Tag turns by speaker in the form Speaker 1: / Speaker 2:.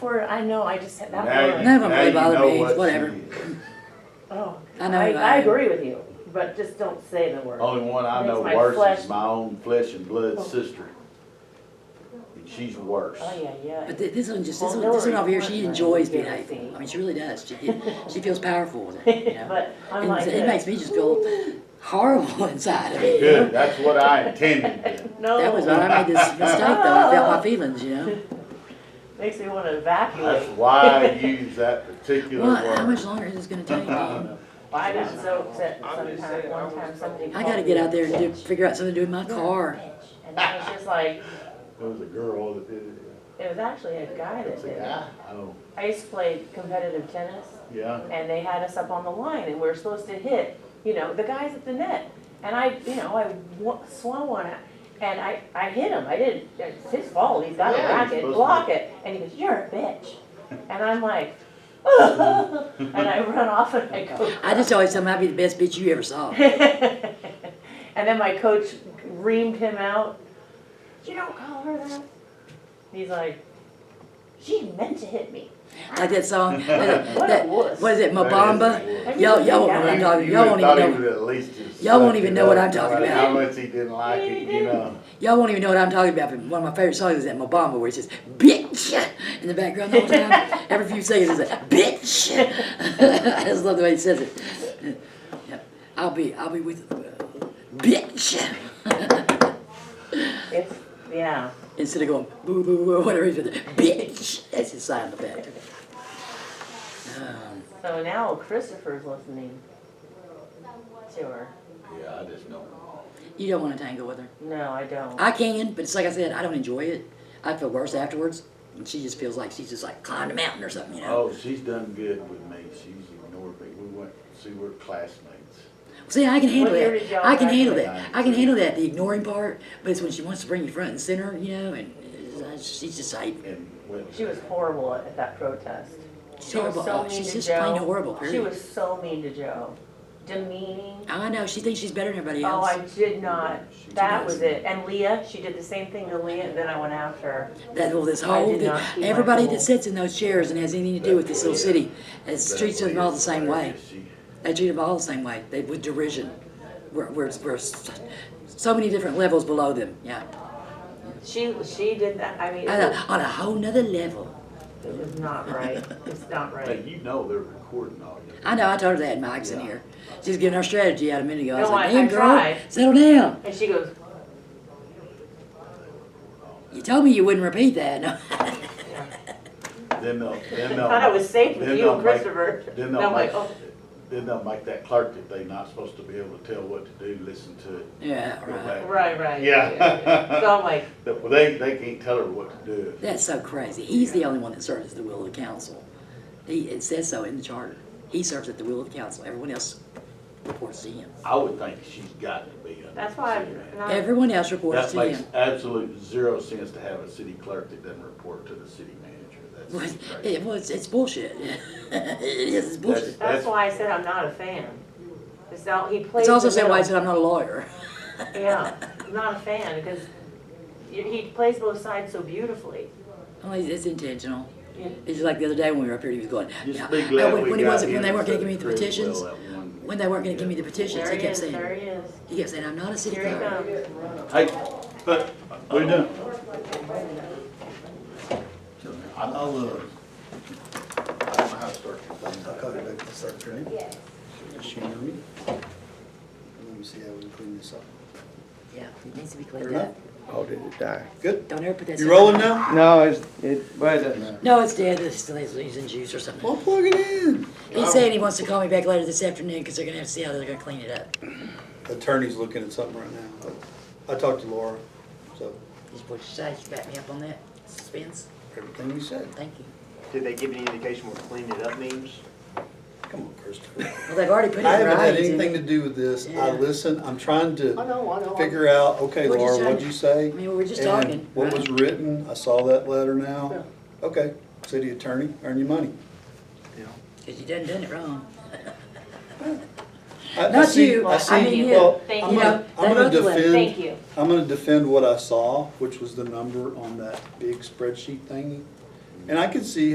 Speaker 1: Word, I know, I just had that
Speaker 2: Now you-
Speaker 1: word.
Speaker 3: None of them
Speaker 2: now
Speaker 3: really
Speaker 2: you
Speaker 3: bother
Speaker 2: know
Speaker 3: me,
Speaker 2: what she
Speaker 3: whatever.
Speaker 2: is.
Speaker 1: Oh,
Speaker 3: I know
Speaker 1: I,
Speaker 3: that.
Speaker 1: I agree with you, but just don't say the word.
Speaker 2: Only one I
Speaker 1: Makes
Speaker 2: know
Speaker 1: my
Speaker 2: worse
Speaker 1: flesh-
Speaker 2: is my own flesh and blood sister. And she's worse.
Speaker 1: Oh, yeah, yeah.
Speaker 3: But thi- this one just, this
Speaker 1: Well,
Speaker 3: one, this one
Speaker 1: Hillary
Speaker 3: over here, she
Speaker 1: Clinton,
Speaker 3: enjoys
Speaker 1: you
Speaker 3: being
Speaker 1: know,
Speaker 3: hateful.
Speaker 1: see.
Speaker 3: I mean, she really does. She, she feels powerful with it, you know?
Speaker 1: But I'm
Speaker 3: And
Speaker 1: like,
Speaker 3: so it makes
Speaker 1: this.
Speaker 3: me just feel horrible inside of me. you know?
Speaker 2: Good, that's what I intended. then.
Speaker 3: That was when
Speaker 1: no,
Speaker 3: I made this mistake though, I felt my feelings, you know?
Speaker 1: makes me wanna
Speaker 2: That's
Speaker 1: evacuate.
Speaker 2: why I use that particular
Speaker 3: Well, how much
Speaker 2: word.
Speaker 3: longer is this gonna take me?
Speaker 1: I got so upset
Speaker 4: I'm just
Speaker 1: sometime,
Speaker 4: saying, I
Speaker 1: one
Speaker 4: was-
Speaker 1: time somebody.
Speaker 3: I gotta
Speaker 1: called
Speaker 3: get
Speaker 1: me a
Speaker 3: out there and do,
Speaker 1: bitch.
Speaker 3: figure out something to do with my
Speaker 1: You're a
Speaker 3: car.
Speaker 1: bitch. And I was just like,
Speaker 2: There was a girl that did it.
Speaker 1: it was actually a guy that
Speaker 2: It's a
Speaker 1: did it.
Speaker 2: guy. I don't,
Speaker 1: I used to play competitive tennis
Speaker 2: yeah.
Speaker 1: and they had us up on the line and we were supposed to hit, you know, the guys at the net. And I, you know, I wa- swung one out and I, I hit him. I didn't, it's his fault. He's got a
Speaker 2: Yeah, you're
Speaker 1: racket,
Speaker 2: supposed
Speaker 1: block
Speaker 2: to.
Speaker 1: it. And he goes, you're a bitch. And I'm like, and I run off and I go.
Speaker 3: I just always tell them I'd be the best bitch you ever saw.
Speaker 1: and then my coach reamed him out. You don't call her that. He's like, she meant to hit me.
Speaker 3: Like that song, that,
Speaker 1: What
Speaker 3: that-
Speaker 1: a wuss.
Speaker 3: what is it,
Speaker 2: That
Speaker 3: Mabamba?
Speaker 2: is a word.
Speaker 3: Y'all, y'all won't know what I'm
Speaker 1: You-
Speaker 3: talking,
Speaker 2: You
Speaker 3: y'all
Speaker 2: would've
Speaker 3: won't
Speaker 2: thought he
Speaker 3: even know,
Speaker 2: would've at least just
Speaker 3: y'all won't
Speaker 2: sucked
Speaker 3: even
Speaker 2: it
Speaker 3: know what
Speaker 2: up,
Speaker 3: I'm
Speaker 2: no
Speaker 3: talking
Speaker 2: matter
Speaker 3: about.
Speaker 2: How much he didn't like it, you know.
Speaker 3: y'all won't even know what I'm talking about, but one of my favorite songs is that Mabamba where it says, bitch, in the background all the time. Every few seconds it's like, bitch. I just love the way he says it. Yeah. I'll be, I'll be with, uh, bitch.
Speaker 1: It's, yeah.
Speaker 3: Instead of going, boo, boo, boo, or whatever he's doing, bitch. That's his sign in the back. Um,
Speaker 1: So now Christopher's listening to her.
Speaker 2: Yeah, I just don't.
Speaker 3: you don't want to tangle with her.
Speaker 1: No, I don't.
Speaker 3: I can, but it's like I said, I don't enjoy it. I feel worse afterwards. And she just feels like she's just like climbed a mountain or something, you know.
Speaker 2: Oh, she's done good with me. She's ignored me. We went, see, we're classmates.
Speaker 3: See, I can handle
Speaker 1: What year
Speaker 3: that.
Speaker 1: did y'all
Speaker 3: I can handle
Speaker 1: graduate?
Speaker 3: that. I can handle that. The ignoring part, but it's when she wants to bring you front and center, you know, and uh, she's just like
Speaker 2: And went.
Speaker 1: She was horrible at, at that protest.
Speaker 3: she's
Speaker 1: She was
Speaker 3: horrible. Oh,
Speaker 1: so mean
Speaker 3: she's
Speaker 1: to
Speaker 3: just
Speaker 1: Joe.
Speaker 3: plain horrible. Period.
Speaker 1: She was so mean to Joe, demeaning.
Speaker 3: I know. She thinks she's better than everybody
Speaker 1: Oh,
Speaker 3: else.
Speaker 1: I did not.
Speaker 2: She
Speaker 1: That
Speaker 3: does.
Speaker 1: was it. And Leah, she did the same thing to Leah, and then I went after her.
Speaker 3: that whole this
Speaker 1: I
Speaker 3: whole
Speaker 1: did
Speaker 3: thing-
Speaker 1: not keep my
Speaker 3: everybody
Speaker 1: cool.
Speaker 3: that sits in those chairs and has anything to do with this little city, has treats them all the same way.
Speaker 2: She-
Speaker 3: They treat them all the same way. They with derision. We're, we're, we're s- so many different levels below them. Yeah.
Speaker 1: She she did that. I mean,
Speaker 3: on
Speaker 1: it
Speaker 3: a, on a whole nother level.
Speaker 1: was, it was not right. It's not
Speaker 2: Hey,
Speaker 1: right.
Speaker 2: you know they're recording all you.
Speaker 3: I know, I told her that, Mike's in here. She's giving her strategy out a minute ago. I was
Speaker 1: No,
Speaker 3: like,
Speaker 1: I-
Speaker 3: damn,
Speaker 1: I
Speaker 3: girl,
Speaker 1: tried."
Speaker 3: settle down.
Speaker 1: And she goes,
Speaker 3: You told me you wouldn't repeat that. No.
Speaker 2: Then they'll, then
Speaker 1: I
Speaker 2: they'll.
Speaker 1: thought I was safe with
Speaker 2: then
Speaker 1: you
Speaker 2: they'll
Speaker 1: and
Speaker 2: make-
Speaker 1: Christopher.
Speaker 2: Then
Speaker 1: And
Speaker 2: they'll
Speaker 1: I'm like,
Speaker 2: make,
Speaker 1: oh,
Speaker 2: then they'll make that clerk that they not supposed to be able to tell what to do, listen to it.
Speaker 3: yeah,
Speaker 2: go
Speaker 3: right.
Speaker 2: back.
Speaker 1: right, right. So
Speaker 2: Yeah.
Speaker 1: I'm like,
Speaker 2: Well, They, they can't tell her what to do.
Speaker 3: That's so crazy. He's the only one that serves at the will of the council. He, it says so in the charter. He serves at the will of the council. Everyone else reports to him.
Speaker 2: I would think she's got to be under
Speaker 1: that's
Speaker 2: the
Speaker 1: why
Speaker 2: city
Speaker 1: I'm
Speaker 2: manager.
Speaker 1: not.
Speaker 3: Everyone else reports
Speaker 2: That
Speaker 3: to
Speaker 2: makes
Speaker 3: him.
Speaker 2: absolute zero sense to have a city clerk that doesn't report to the city manager.
Speaker 3: Well,
Speaker 2: That's crazy.
Speaker 3: it, well, it's, it's bullshit. it is, it's bullshit.
Speaker 1: That's
Speaker 2: That's-
Speaker 1: why I said I'm not a fan. It's all, he plays.
Speaker 3: It's also
Speaker 1: the
Speaker 3: said why I
Speaker 1: middle.
Speaker 3: said I'm not a lawyer.
Speaker 1: Yeah, I'm not a fan because he he plays both sides so beautifully.
Speaker 3: Well, it's, it's intentional.
Speaker 1: Yeah.
Speaker 3: It's just like the other day when we were up here, he was going, "Now,
Speaker 2: Just be
Speaker 3: uh,
Speaker 2: glad
Speaker 3: when,
Speaker 2: we
Speaker 3: when he
Speaker 2: got
Speaker 3: wasn't, when
Speaker 2: him
Speaker 3: they weren't
Speaker 2: instead
Speaker 3: gonna give me
Speaker 2: of
Speaker 3: the
Speaker 2: Criswell
Speaker 3: petitions,
Speaker 2: that one-
Speaker 3: when they weren't gonna give me the petitions,
Speaker 1: There
Speaker 3: he
Speaker 1: he
Speaker 3: kept
Speaker 1: is,
Speaker 3: saying,
Speaker 1: there he is.
Speaker 3: he kept saying, I'm not a city
Speaker 1: Here he comes.
Speaker 3: clerk.
Speaker 2: Hey, but, we're done. I'll, uh. I don't know how to start your
Speaker 4: I'll
Speaker 2: thing.
Speaker 4: cut it back to start training. Yes. She hear me? Let me see how we clean this up.
Speaker 3: Yeah, it needs to be cleaned
Speaker 4: Fair enough.
Speaker 3: up.
Speaker 5: Oh, did it die?
Speaker 4: Good.
Speaker 3: Don't ever put that.
Speaker 4: You
Speaker 3: stuff-
Speaker 4: rolling now?
Speaker 5: No, it's, it, well, it doesn't matter.
Speaker 3: No, it's dead, it's still it's using juice or something.
Speaker 4: Well, plug it in.
Speaker 3: He said he wants to call me back later this afternoon, because they're gonna have to see how they're gonna clean it up.
Speaker 4: Attorney's looking at something right now. I talked to Laura, so
Speaker 3: Just what you say, you back me up on that, suspense,
Speaker 4: everything you said.
Speaker 3: thank you.
Speaker 6: Did they give any indication what clean it up means?
Speaker 4: Come on, Christopher.
Speaker 3: Well, they've already put it
Speaker 4: I haven't had
Speaker 3: right.
Speaker 4: anything
Speaker 3: and-
Speaker 4: to do with this. I
Speaker 3: Yeah.
Speaker 4: listen, I'm trying
Speaker 6: I
Speaker 4: to
Speaker 6: know, I know.
Speaker 4: figure out, okay,
Speaker 3: We're just
Speaker 4: Laura,
Speaker 3: trying-
Speaker 4: what'd you say?
Speaker 3: I mean, we were just
Speaker 4: And
Speaker 3: talking,
Speaker 4: What
Speaker 3: right?
Speaker 4: was written, I saw that letter now. Okay, city attorney, earn your money.
Speaker 3: Cause you done done it wrong.
Speaker 4: I- I
Speaker 3: Not
Speaker 4: see-
Speaker 3: you,
Speaker 4: I
Speaker 3: I
Speaker 4: see-
Speaker 3: mean you.
Speaker 4: well,
Speaker 1: Thank
Speaker 4: I'm
Speaker 1: you.
Speaker 4: gonna-
Speaker 3: They
Speaker 4: I'm gonna
Speaker 3: wrote the letter.
Speaker 4: defend.
Speaker 1: Thank you.
Speaker 4: I'm gonna defend what I saw, which was the number on that big spreadsheet thingy. And I can see